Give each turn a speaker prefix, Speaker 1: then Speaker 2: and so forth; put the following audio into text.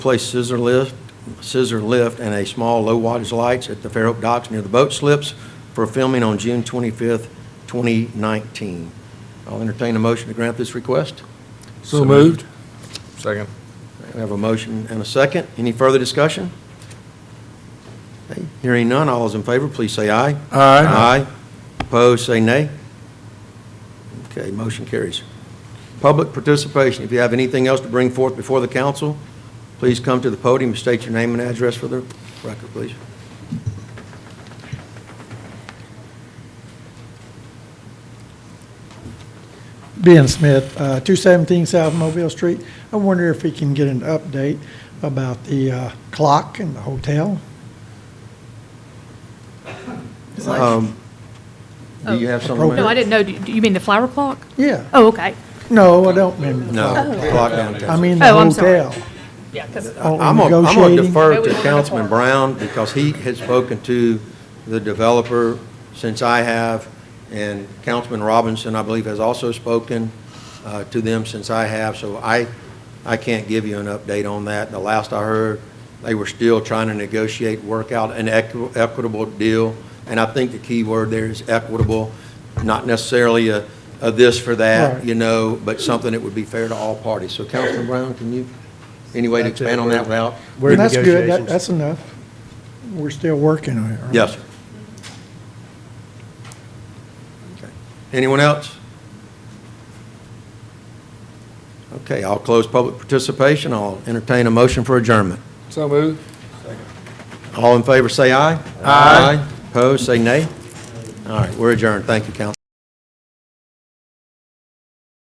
Speaker 1: place scissor lift, scissor lift and a small low wattage lights at the Fairhope docks near the boat slips for filming on June 25th, 2019. I'll entertain a motion to grant this request.
Speaker 2: So moved.
Speaker 3: Second.
Speaker 1: We have a motion and a second. Any further discussion? Okay, Hearing none, all those in favor, please say aye.
Speaker 2: Aye.
Speaker 1: Opposed, say nay. Okay, motion carries. Public participation, if you have anything else to bring forth before the council, please come to the podium and state your name and address for the record, please.
Speaker 4: Ben Smith, uh, 217 South Mobile Street. I wonder if we can get an update about the uh, clock in the hotel?
Speaker 1: Um, Do you have something?
Speaker 4: Appropriate.
Speaker 5: Oh. No, I didn't know. Do do you mean the flower clock?
Speaker 4: Yeah.
Speaker 5: Oh, okay.
Speaker 4: No, I don't mean the
Speaker 1: No,
Speaker 4: flower.
Speaker 1: clock down.
Speaker 4: I mean the
Speaker 5: Oh, I'm sorry.
Speaker 4: hotel.
Speaker 5: Yeah, because
Speaker 4: Oh,
Speaker 1: I'm going to defer to
Speaker 5: Negotiating.
Speaker 1: Councilman Brown because he has spoken to the developer since I have, and Councilman Robinson, I believe, has also spoken uh, to them since I have, so I, I can't give you an update on that. The last I heard, they were still trying to negotiate, work out an equi- equitable deal, and I think the key word there is equitable, not necessarily a, a this for that,
Speaker 4: Right.
Speaker 1: you know, but something that would be fair to all parties. So Councilman Brown, can you, any way to
Speaker 3: That's it.
Speaker 1: expand on that route?
Speaker 3: We're in
Speaker 4: That's good, That-
Speaker 3: negotiations.
Speaker 4: that's enough. We're still working on it, right?
Speaker 1: Yes. sir. Okay. Anyone else? Okay, I'll close public participation. I'll entertain a motion for adjournment.
Speaker 2: So moved.
Speaker 1: All in favor, say aye. Aye. Opposed, say nay. All right, we're adjourned. Thank you, council.